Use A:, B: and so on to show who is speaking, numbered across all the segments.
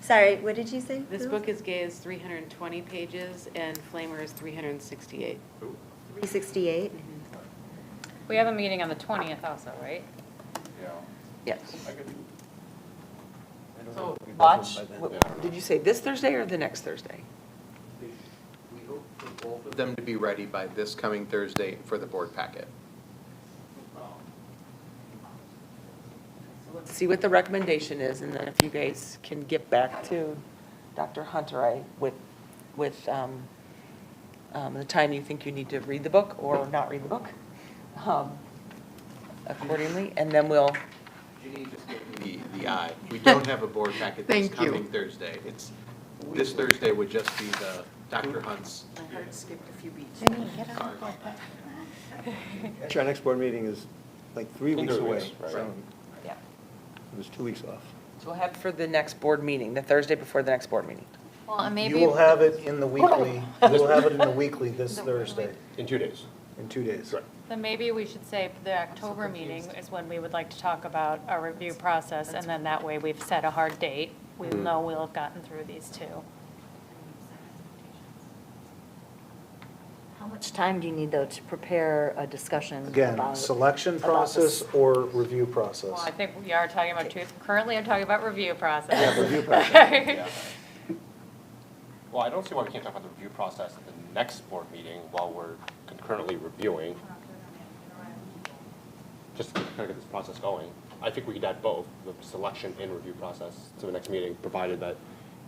A: Sorry, what did you say?
B: This
A: Who?
B: book is gay is 320 pages and Flamer is 368.
A: 368.
C: We have a meeting on the 20th also, right?
D: Yeah.
E: Yes.
D: I could do- I don't know
F: So
D: if we
F: watch,
D: both of them by
F: what-
D: then. Yeah, I don't
E: Did
D: know.
E: you say this Thursday or the next Thursday?
G: We hope for both of them to be ready by this coming Thursday for the board packet.
D: um,
E: See what the recommendation is, and then if you guys can get back to Dr. Hunter, I, with, with um, um, the time you think you need to read the book or not read the book um, accordingly, and then we'll,
G: Ginny just gave me the, the eye. We don't have a board packet this
B: Thank you.
G: coming Thursday. It's, this Thursday would just be the Dr. Hunt's.
B: My heart skipped a few beats.
G: card.
H: Actually, our next board meeting is like three
D: In
H: weeks
D: three
H: away,
D: weeks, right.
H: so
E: yeah.
H: it was two weeks off.
E: So we'll have for the next board meeting, the Thursday before the next board meeting.
I: Well, and
H: You
I: maybe.
H: will have it in the weekly, you will have it in the weekly this
I: The-
H: Thursday,
D: In two days.
H: in two days.
D: Right.
C: Then maybe we should say the October meeting is when we would like to talk about our review process, and then that way we've set a hard date. We know we'll have gotten through these two.
J: How much time do you need, though, to prepare a discussion
H: Again,
J: about-
H: selection
J: about this?
H: process or review
C: Well,
H: process?
C: I think we are talking about two, currently I'm talking about review process.
H: Yeah, review
D: Yeah. Well, I don't see why we can't talk about the review process at the next board meeting while we're concurrently reviewing. Just to kind of get this process going. I think we could add both, the selection and review process to the next meeting, provided that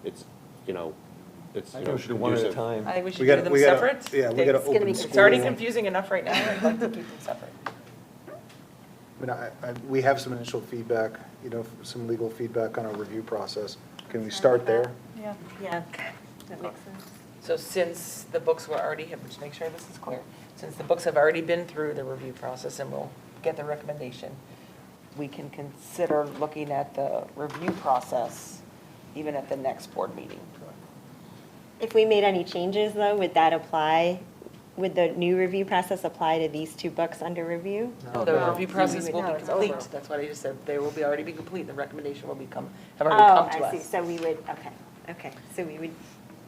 D: it's, you know, it's, you know. conducive.
E: I think we should
H: We
E: do
H: gotta-
E: them
H: we gotta-
E: separate.
H: yeah, we gotta
E: It's-
H: open
E: It's already
H: school.
E: confusing enough right now, I'd like to keep them separate.
H: I mean, I, I, we have some initial feedback, you know, some legal feedback on our review process. Can we start there?
C: Yeah.
A: Yeah, that makes sense.
E: So since the books were already, to make sure this is clear, since the books have already been through the review process and will get the recommendation, we can consider looking at the review process even at the next board meeting.
A: If we made any changes, though, would that apply, would the new review process apply to these two books under review?
E: The review process will
A: No,
E: be
A: it's over.
E: complete, that's what I just said, they will be, already be complete, the recommendation will become, have
A: Oh,
E: already come to us.
A: I see, so we would, okay, okay, so we would,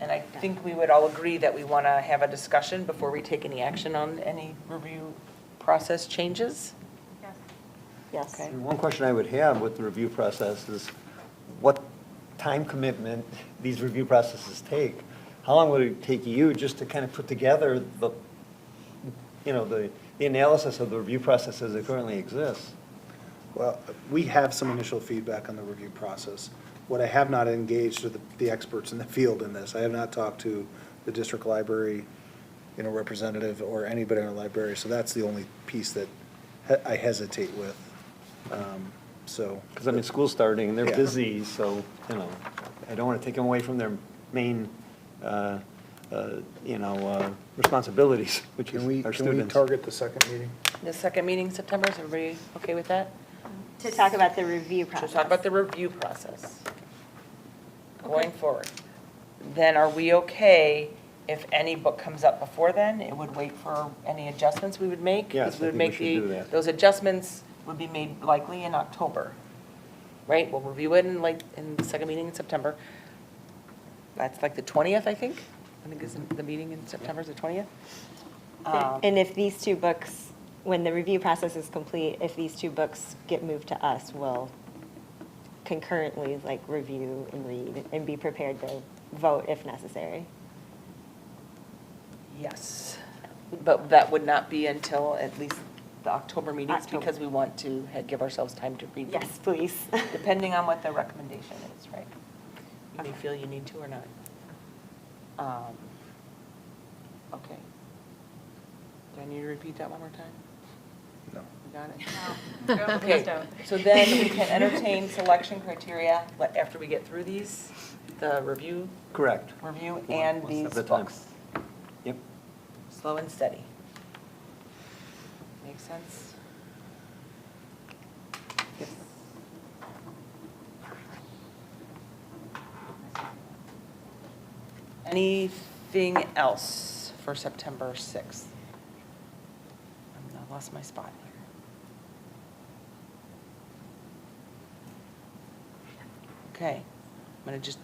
E: And I think we would all agree that we want to have a discussion before we take any action on any review process changes?
A: yes.
E: Okay.
H: One question I would have with the review process is what time commitment these review processes take? How long would it take you just to kind of put together the, you know, the, the analysis of the review process as it currently exists? Well, we have some initial feedback on the review process. What I have not engaged with the- the experts in the field in this, I have not talked to the district library, you know, representative or anybody in our library, so that's the only piece that he- I hesitate with, Um, so.
K: Because I mean, school's starting, they're
H: Yeah.
K: busy, so, you know, I don't want to take them away from their main, uh, uh, you know, uh, responsibilities, which
H: Can we,
K: is our
H: can we
K: students.
H: target the second meeting?
E: The second meeting in September, is everybody okay with that?
A: To talk about the review
E: To
A: process.
E: talk about the review process going forward. Then are we okay if any book comes up before then? It would wait for any adjustments we would make? because
K: Yes, I
E: would
K: think we
E: make
K: should
E: the-
K: do that.
E: Those adjustments would be made likely in October, right? We'll review it in like, in the second meeting in September. That's like the 20th, I think? I think is the meeting in September is the 20th? Um,
A: And if these two books, when the review process is complete, if these two books get moved to us, we'll concurrently, like, review and read and be prepared to vote if necessary.
E: Yes, but that would not be until at least the October meetings
A: October.
E: because we want to ha- give ourselves time to read. them.
A: Yes, please.
E: Depending on what the recommendation is, right? You may feel you need to or not. Um, Okay. Do I need to repeat that one more time?
H: No.
E: You Got it?
C: Go, please
E: Okay,
C: don't.
E: so then we can entertain selection criteria like, after we get through these, the review,
K: Correct.
E: review
K: One-
E: and
K: one
E: these
K: step at a time.
E: books.
K: Yep.
E: Slow and steady. Make sense? Anything else for September 6th? I'm- I lost my spot here. Okay, I'm going to just